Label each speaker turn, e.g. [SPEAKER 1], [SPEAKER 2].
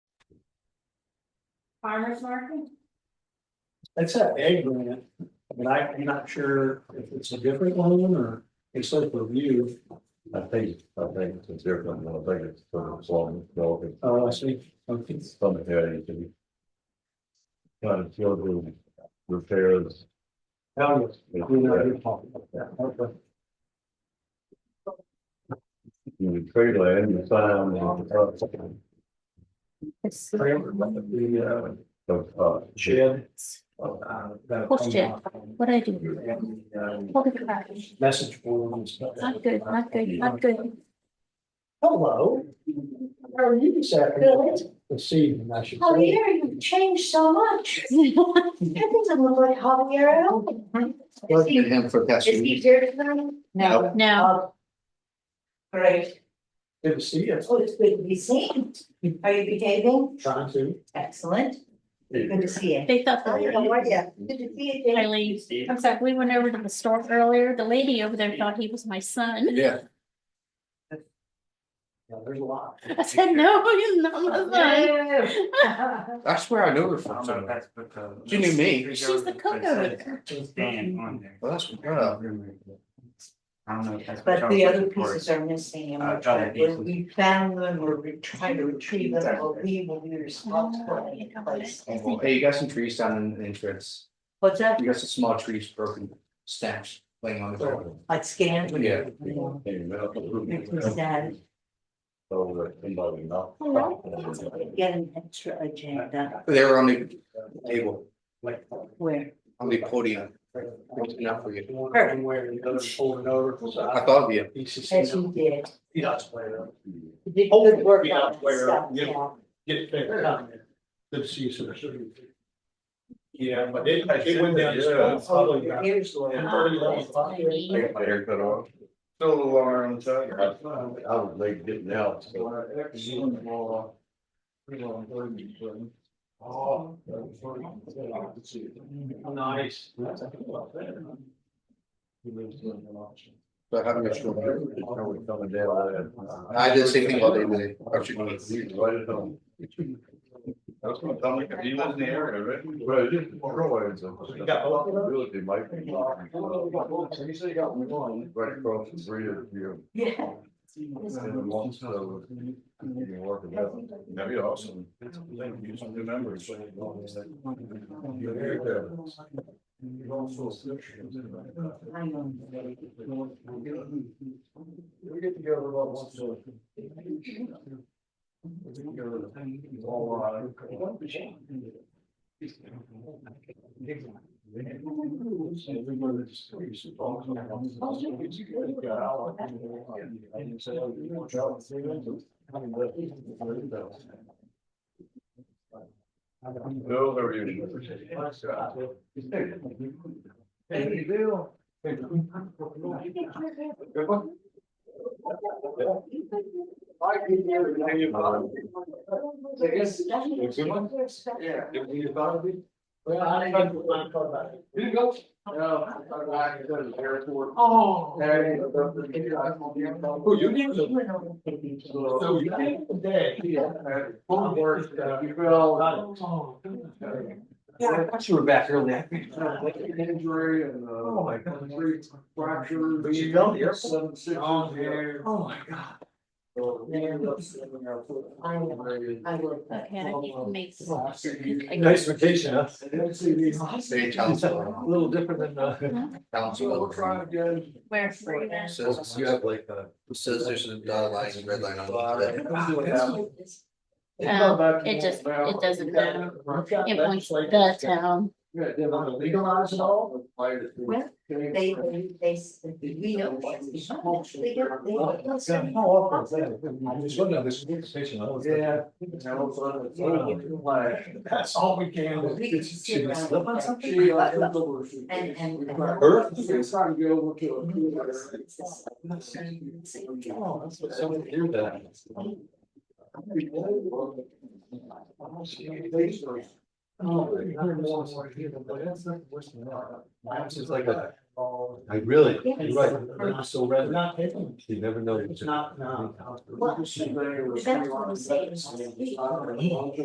[SPEAKER 1] farmer's market?
[SPEAKER 2] That's that ag grant, but I- I'm not sure if it's a different one or it's like review,
[SPEAKER 3] I think, I think it's different, I think it's sort of long, relevant,
[SPEAKER 2] uh, I see. Okay.
[SPEAKER 3] some areas to be. Kind of field room repairs.
[SPEAKER 2] Now, we know you're talking about that. Okay.
[SPEAKER 3] You trade land, you sign on the.
[SPEAKER 4] It's
[SPEAKER 2] Trailer, the, uh,
[SPEAKER 3] uh, uh,
[SPEAKER 2] shed. uh,
[SPEAKER 4] Horse shed.
[SPEAKER 2] um,
[SPEAKER 4] what I do. Holy crap.
[SPEAKER 2] Message board and stuff.
[SPEAKER 4] Not good, not good, not good.
[SPEAKER 2] Hello. How are you this afternoon? This evening, I should say.
[SPEAKER 1] Javier, you've changed so much. That doesn't look like Javier at all. Is
[SPEAKER 5] Look at
[SPEAKER 1] he,
[SPEAKER 5] him for
[SPEAKER 1] is
[SPEAKER 5] that.
[SPEAKER 1] he here tonight? No. Oh.
[SPEAKER 4] Now,
[SPEAKER 1] Great.
[SPEAKER 2] Good to see you.
[SPEAKER 1] Oh, it's good to be seen. Are you behaving?
[SPEAKER 2] Trying to.
[SPEAKER 1] Excellent. Good to see you.
[SPEAKER 4] they thought,
[SPEAKER 1] Hi, how are you? Good to see you. Jane.
[SPEAKER 4] Eileen, I'm sorry, we went over to the store earlier. The lady over there thought he was my son.
[SPEAKER 5] Yeah,
[SPEAKER 2] Yeah, there's a lot.
[SPEAKER 4] I said, no, he's not my son.
[SPEAKER 1] Yeah.
[SPEAKER 5] I swear I knew her
[SPEAKER 6] I
[SPEAKER 5] from
[SPEAKER 6] don't know if
[SPEAKER 5] somewhere.
[SPEAKER 6] that's because.
[SPEAKER 5] She knew me.
[SPEAKER 4] She's the cook over there.
[SPEAKER 6] Dan on there.
[SPEAKER 5] Well, that's what, uh,
[SPEAKER 6] I don't know if that's.
[SPEAKER 1] But the other pieces are missing and
[SPEAKER 6] Uh,
[SPEAKER 1] we're
[SPEAKER 6] other
[SPEAKER 1] trying, we-
[SPEAKER 6] pieces.
[SPEAKER 1] we found them, we're re- trying to retrieve them, but we will be responsible
[SPEAKER 4] Oh,
[SPEAKER 1] in
[SPEAKER 4] you know what?
[SPEAKER 1] place.
[SPEAKER 4] I think-
[SPEAKER 5] hey, you got some trees down in the entrance.
[SPEAKER 1] What's that?
[SPEAKER 5] You got some small trees broken, snaps laying on the ground.
[SPEAKER 1] Like scanned?
[SPEAKER 5] Yeah.
[SPEAKER 1] It's sad.
[SPEAKER 3] So that somebody not.
[SPEAKER 1] Get an extra agenda
[SPEAKER 5] They were on the table,
[SPEAKER 2] Like.
[SPEAKER 1] where,
[SPEAKER 5] on the podium. What's enough for you?
[SPEAKER 2] One where the other's holding over.
[SPEAKER 5] I thought of you.
[SPEAKER 1] as you did,
[SPEAKER 2] He does where,
[SPEAKER 1] you did good work
[SPEAKER 2] Yeah,
[SPEAKER 1] on
[SPEAKER 2] where,
[SPEAKER 1] this stuff,
[SPEAKER 2] yeah.
[SPEAKER 1] yeah.
[SPEAKER 2] get it figured out. Good to see you, sir. Yeah, but it, it went down.
[SPEAKER 3] Yeah.
[SPEAKER 2] It's probably about-
[SPEAKER 1] Here's one.
[SPEAKER 2] Yeah, pretty long.
[SPEAKER 1] Ah, that's tiny.
[SPEAKER 3] I got my hair cut off.
[SPEAKER 5] Still a little longer on the side.
[SPEAKER 3] I was late getting out, so.
[SPEAKER 2] Oh. Nice.
[SPEAKER 5] But how much? I
[SPEAKER 3] I
[SPEAKER 5] did the same thing all day today. Actually,
[SPEAKER 3] That's what I'm like, if you live in the area, right? Well, it is, Roy, it's a- Really, Mike.
[SPEAKER 2] So you say you got one.
[SPEAKER 3] Right across the street of you.
[SPEAKER 1] Yeah.
[SPEAKER 3] And once, so, you can work it out. That'd be awesome. Thank you, some new members. You're very good.
[SPEAKER 1] I know.
[SPEAKER 2] We get together about once a. We get together all, uh, one machine. And we go to the streets, it's all kind of- We got out, and I didn't say, oh, you know, Joe, it's three minutes. I mean, but-
[SPEAKER 3] Bill, how are you?
[SPEAKER 2] Hey, Bill. Good one. I can hear it, now you're bothering me. I guess-
[SPEAKER 3] Looks good one?
[SPEAKER 2] Yeah. You bothered me? Well, I didn't get one call about it. Did you go? No, I thought I could go to the airport.
[SPEAKER 1] Oh.
[SPEAKER 2] There you go. Oh, you did? So you did today? Yeah.
[SPEAKER 6] Oh,
[SPEAKER 2] Phone worked, uh, you well.
[SPEAKER 6] I thought you were back early.
[SPEAKER 2] Uh, Injury and, uh.
[SPEAKER 6] Oh, my God.
[SPEAKER 2] three Fracture.
[SPEAKER 6] But you go to the airport.
[SPEAKER 2] Seven, six.
[SPEAKER 6] Oh, Oh, my God.
[SPEAKER 2] So we ended up sitting in our foot.
[SPEAKER 1] I know. I will, but
[SPEAKER 4] Okay, I need to make.
[SPEAKER 2] Nice vacation, huh?
[SPEAKER 5] Stay council.
[SPEAKER 2] Little different than, uh.
[SPEAKER 5] Council.
[SPEAKER 2] again.
[SPEAKER 4] Where for that?
[SPEAKER 5] Says you have like
[SPEAKER 2] a.
[SPEAKER 5] Says there's a dotted line and red line on it.
[SPEAKER 4] Um, it just- it doesn't matter. It points to the town.
[SPEAKER 2] They want to legalize it all?
[SPEAKER 1] Well, they, they, they, we know what's behind it. They don't, they don't.
[SPEAKER 2] Yeah, How often is that? I just wonder, this conversation. Yeah. That's all we can.
[SPEAKER 1] We can just sit around.
[SPEAKER 2] Slip on something?
[SPEAKER 1] She, uh, took And- and-
[SPEAKER 2] Earth? It's not go over to a computer.
[SPEAKER 1] Well,
[SPEAKER 2] Oh, that's what someone hear that. That's just like a.
[SPEAKER 7] I really,
[SPEAKER 1] Yes.
[SPEAKER 7] you're right, I'm not so red,
[SPEAKER 2] Not taking.
[SPEAKER 7] you never know.
[SPEAKER 2] It's not, no.
[SPEAKER 1] Well, that's what I'm saying.